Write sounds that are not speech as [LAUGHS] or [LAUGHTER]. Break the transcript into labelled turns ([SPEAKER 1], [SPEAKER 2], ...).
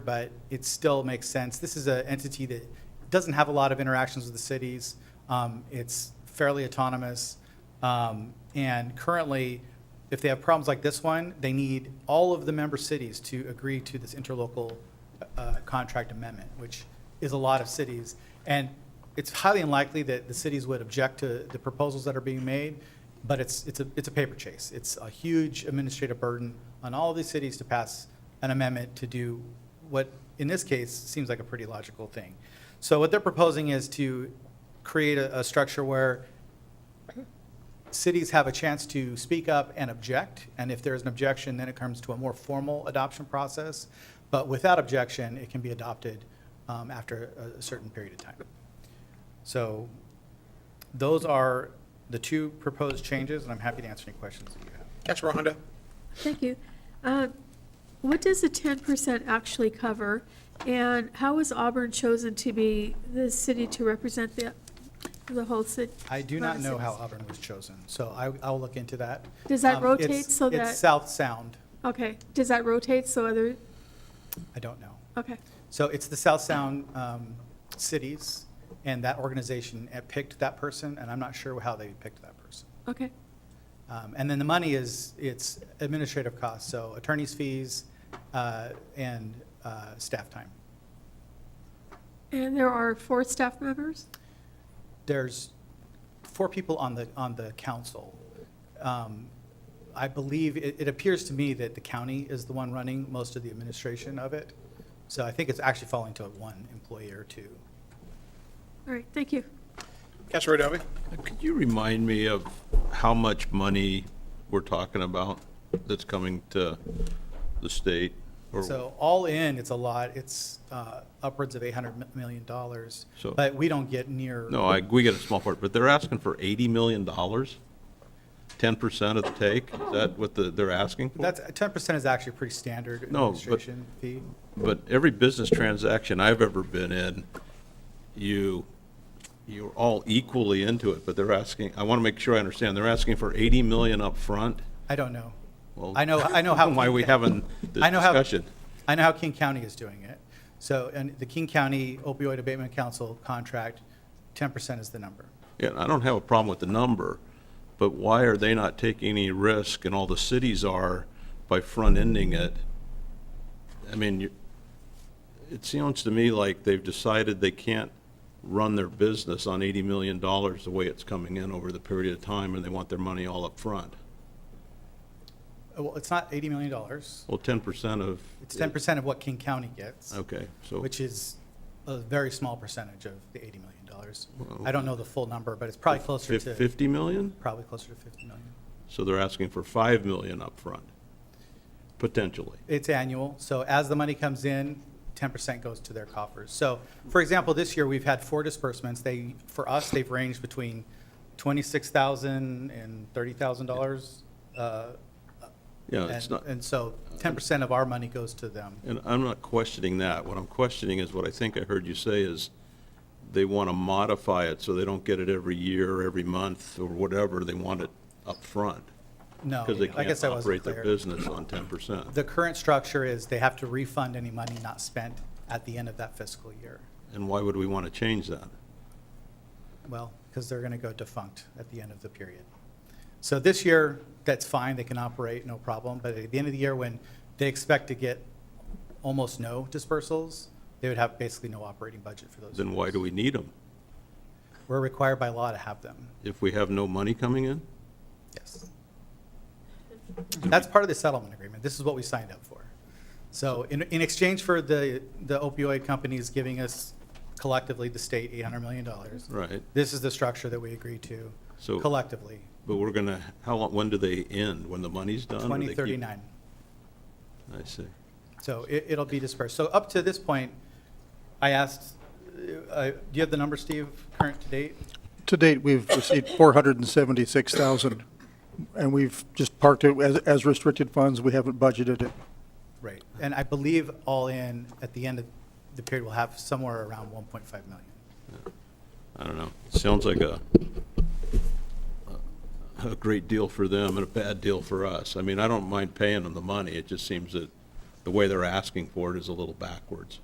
[SPEAKER 1] but it still makes sense. This is an entity that doesn't have a lot of interactions with the cities. Um, It's fairly autonomous. Um, And currently, if they have problems like this one, they need all of the member cities to agree to this interlocal uh, contract amendment, which is a lot of cities. And it's highly unlikely that the cities would object to the proposals that are being made, but it's, it's a, it's a paper chase. It's a huge administrative burden on all of these cities to pass an amendment to do what, in this case, seems like a pretty logical thing. So what they're proposing is to create a, a structure where cities have a chance to speak up and object, and if there's an objection, then it comes to a more formal adoption process. But without objection, it can be adopted um, after a- a certain period of time. So those are the two proposed changes, and I'm happy to answer any questions that you have.
[SPEAKER 2] Councilor Honda?
[SPEAKER 3] Thank you. Uh, What does the ten percent actually cover? And how was Auburn chosen to be the city to represent the, the whole city?
[SPEAKER 1] I do not know how Auburn was chosen, so I, I'll look into that.
[SPEAKER 3] Does that
[SPEAKER 1] Um,
[SPEAKER 3] rotate
[SPEAKER 1] it's-
[SPEAKER 3] so that-
[SPEAKER 1] It's South Sound.
[SPEAKER 3] Okay, does that rotate so other,
[SPEAKER 1] I don't know.
[SPEAKER 3] okay,
[SPEAKER 1] So it's the South Sound um, cities, and that organization uh, picked that person, and I'm not sure how they picked that person.
[SPEAKER 3] okay,
[SPEAKER 1] Um, And then the money is, it's administrative costs, so attorney's fees uh, and uh, staff time.
[SPEAKER 3] and there are four staff members?
[SPEAKER 1] There's four people on the, on the council. Um, I believe, it, it appears to me that the county is the one running most of the administration of it. So I think it's actually falling to one employee or two.
[SPEAKER 3] All right, thank you.
[SPEAKER 2] Councilor Adobe?
[SPEAKER 4] Uh, Could you remind me of how much money we're talking about that's coming to the state? or-
[SPEAKER 1] So all in, it's a lot, it's uh, upwards of $800 million,
[SPEAKER 4] So-
[SPEAKER 1] but we don't get near.
[SPEAKER 4] No, I, we get a small part, but they're asking for eighty million dollars? Ten percent of the take? Is that what the, they're asking for?
[SPEAKER 1] That's, 10% is actually pretty standard
[SPEAKER 4] No, but-
[SPEAKER 1] administration fee.
[SPEAKER 4] But every business transaction I've ever been in, you, you're all equally into it, but they're asking, I want to make sure I understand, they're asking for eighty million upfront?
[SPEAKER 1] I don't know.
[SPEAKER 4] Well,
[SPEAKER 1] I know, I know how.
[SPEAKER 4] [LAUGHS] Why
[SPEAKER 1] King [LAUGHS]
[SPEAKER 4] we
[SPEAKER 1] Ca-
[SPEAKER 4] having this
[SPEAKER 1] I know how-
[SPEAKER 4] discussion?
[SPEAKER 1] I know how King County is doing it. So, and the King County opioid abatement council contract, 10% is the number.
[SPEAKER 4] Yeah, I don't have a problem with the number, but why are they not taking any risk and all the cities are by front-ending it? I mean, you- it sounds to me like they've decided they can't run their business on $80 million the way it's coming in over the period of time, and they want their money all up front.
[SPEAKER 1] Uh, Well, it's not $80 million. It's
[SPEAKER 4] Well, 10% of.
[SPEAKER 1] 10% of what King County gets,
[SPEAKER 4] Okay, so,
[SPEAKER 1] which is a very small percentage of the $80 million.
[SPEAKER 4] Well,
[SPEAKER 1] I don't know the full number, but it's probably closer
[SPEAKER 4] fif-
[SPEAKER 1] to,
[SPEAKER 4] 50 million?
[SPEAKER 1] probably closer to 50 million.
[SPEAKER 4] So they're asking for 5 million upfront, potentially.
[SPEAKER 1] It's annual, so as the money comes in, ten percent goes to their coffers. So, for example, this year, we've had four disbursements. They, for us, they've ranged between twenty-six thousand and thirty thousand dollars. uh,
[SPEAKER 4] Yeah, it's not.
[SPEAKER 1] And so ten percent of our money goes to them.
[SPEAKER 4] And I'm not questioning that. What I'm questioning is what I think I heard you say is they want to modify it so they don't get it every year, or every month, or whatever. They want it up front
[SPEAKER 1] No,
[SPEAKER 4] because they
[SPEAKER 1] Oh, I
[SPEAKER 4] can't
[SPEAKER 1] guess I wasn't
[SPEAKER 4] operate
[SPEAKER 1] clear.
[SPEAKER 4] their business on 10%.
[SPEAKER 1] The current structure is they have to refund any money not spent at the end of that fiscal year.
[SPEAKER 4] And why would we want to change that?
[SPEAKER 1] Well, because they're going to go defunct at the end of the period. So this year, that's fine, they can operate, no problem, but at the end of the year, when they expect to get almost no dispersals, they would have basically no operating budget for those.
[SPEAKER 4] Then why do we need them
[SPEAKER 1] years. We're required by law to have them,
[SPEAKER 4] if we have no money coming in?
[SPEAKER 1] yes. That's part of the settlement agreement, this is what we signed up for. So in, in exchange for the the opioid companies giving us collectively, the state, $800 million,
[SPEAKER 4] Right.
[SPEAKER 1] this is the structure that we agreed to
[SPEAKER 4] So-
[SPEAKER 1] collectively.
[SPEAKER 4] But we're going to, how long, when do they end? When the money's done? or they keep-
[SPEAKER 1] 2039.
[SPEAKER 4] I see.
[SPEAKER 1] So it, it'll be dispersed. So up to this point, I asked, uh, uh, do you have the number, Steve, current to date?
[SPEAKER 5] To date, we've received four hundred and seventy-six thousand, and we've just parked it as, as restricted funds, we haven't budgeted it.
[SPEAKER 1] Right. And I believe all in, at the end of the period, we'll have somewhere around 1.5 million.
[SPEAKER 4] I don't know. Sounds like a, a great deal for them and a bad deal for us. I mean, I don't mind paying them the money. It just seems that the way they're asking for it is a little backwards.